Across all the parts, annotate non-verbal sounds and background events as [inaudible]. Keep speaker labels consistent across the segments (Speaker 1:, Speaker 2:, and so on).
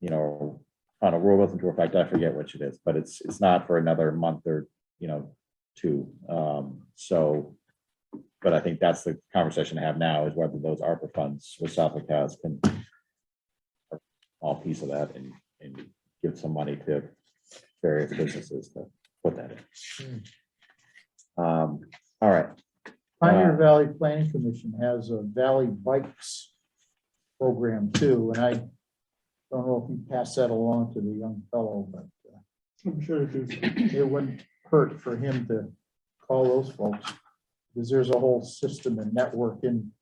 Speaker 1: you know, on a rule goes into effect, I forget which it is, but it's, it's not for another month or, you know, two. Um, so, but I think that's the conversation to have now is whether those ARPA funds with Suffolk has can are all piece of that and, and give some money to various businesses to put that in. Um, all right,
Speaker 2: Pioneer
Speaker 1: Uh,
Speaker 2: Valley Planning Commission has a Valley Bikes program too, and I don't know if you pass that along to the young fellow, but uh,
Speaker 3: I'm sure it is.
Speaker 2: it wouldn't hurt for him to call those folks. Because there's a whole system and network in,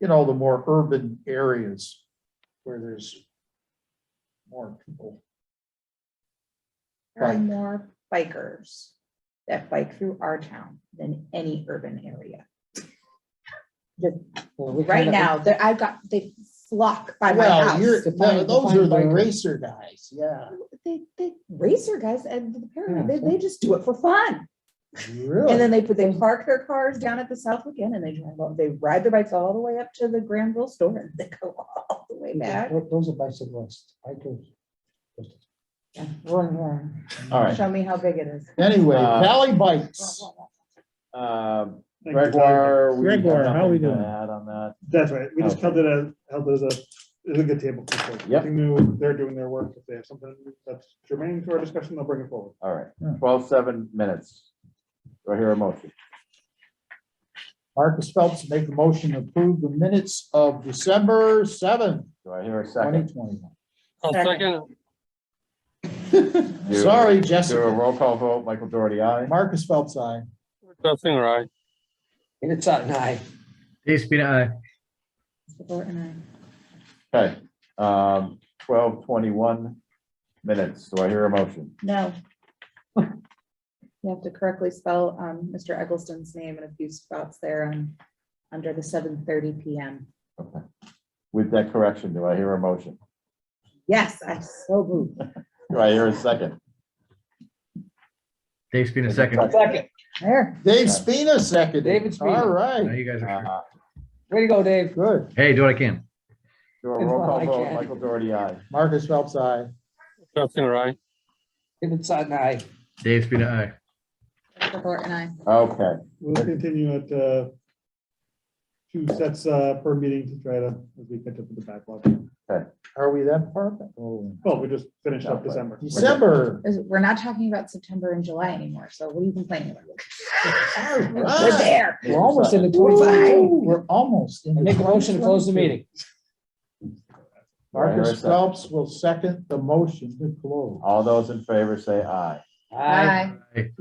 Speaker 2: in all the more urban areas where there's more people.
Speaker 4: There are
Speaker 2: Bike.
Speaker 4: more bikers that bike through our town than any urban area. Right now, that I've got, they flock by my
Speaker 2: Well, you're,
Speaker 4: house.
Speaker 2: no, those are the racer guys, yeah,
Speaker 4: They, they racer guys and the parent, they, they just do it for fun. And
Speaker 2: really.
Speaker 4: then they put, they park their cars down at the Southwick Inn and they drive up, they ride their bikes all the way up to the Granville store and [laughs] they go all the way back.
Speaker 5: Those are bicyclists, bikers.
Speaker 4: Vroom, vroom.
Speaker 1: all right.
Speaker 4: Show me how big it is.
Speaker 2: Anyway,
Speaker 1: Uh,
Speaker 2: Valley Bikes.
Speaker 1: Um,
Speaker 3: Thank you,
Speaker 1: Gregoire. we have
Speaker 5: Gregoire, how we
Speaker 1: nothing to
Speaker 5: doing?
Speaker 1: Add on that.
Speaker 3: That's right. We just
Speaker 1: Okay.
Speaker 3: held it as, held it as a, it's a good table. for folks.
Speaker 1: Yep.
Speaker 3: I think they're- They're doing their work. If they have something that's germane to our discussion, they'll bring it forward.
Speaker 1: All right,
Speaker 2: Yeah.
Speaker 1: twelve, seven minutes. Do I hear a motion?
Speaker 2: Marcus Phelps make a motion to approve the minutes of December seventh,
Speaker 1: Do I hear a
Speaker 2: twenty
Speaker 1: second?
Speaker 2: twenty-one.
Speaker 6: I'll
Speaker 4: Second.
Speaker 6: second.
Speaker 1: Do-
Speaker 2: Sorry,
Speaker 1: Do a
Speaker 2: Jessica.
Speaker 1: roll call vote, Michael Doherty, aye.
Speaker 2: Marcus Phelps, I.
Speaker 6: Nothing right.
Speaker 5: It's on high.
Speaker 7: Dave Spina, aye.
Speaker 4: Borton,
Speaker 1: Okay, um, twelve, twenty-one minutes. Do I hear a motion?
Speaker 4: I- No. You have to correctly spell um, Mr. Eggleston's name in a few spots there um, under the 7:30 PM.
Speaker 1: Okay. With that correction, do I hear a motion?
Speaker 4: Yes, I so moved.
Speaker 1: Do I hear a second?
Speaker 7: Dave Spina, second.
Speaker 5: Second,
Speaker 4: There.
Speaker 2: Dave Spina seconded.
Speaker 5: David Spina.
Speaker 2: All
Speaker 7: Now
Speaker 2: right,
Speaker 7: you guys are,
Speaker 1: Uh,
Speaker 5: way to go, Dave.
Speaker 2: good.
Speaker 7: hey, do what I can.
Speaker 1: Do a roll
Speaker 5: I
Speaker 1: call vote,
Speaker 5: can.
Speaker 1: Michael Doherty, aye.
Speaker 2: Marcus Phelps, I.
Speaker 6: Nothing right.
Speaker 5: It's on high.
Speaker 7: Dave Spina, aye.
Speaker 4: Mr. Borton, I.
Speaker 1: Okay,
Speaker 3: We'll continue at, uh, two sets, uh, per meeting to try to, as we catch up with the backlog.
Speaker 2: Are we that far? back? Oh,
Speaker 3: Well, we just finished up December.
Speaker 2: December.
Speaker 4: Is- We're not talking about September and July anymore, so what are you complaining about?
Speaker 2: All
Speaker 4: We're
Speaker 2: right.
Speaker 4: there.
Speaker 5: We're almost in the twenty-five.
Speaker 2: Woo, We're almost. in
Speaker 5: I
Speaker 2: the
Speaker 5: make a motion to close the
Speaker 2: 2022.
Speaker 5: meeting.
Speaker 1: Wait a
Speaker 2: Marcus
Speaker 1: second.
Speaker 2: Phelps will second the motion to close.
Speaker 1: all those in favor say aye.
Speaker 4: Bye.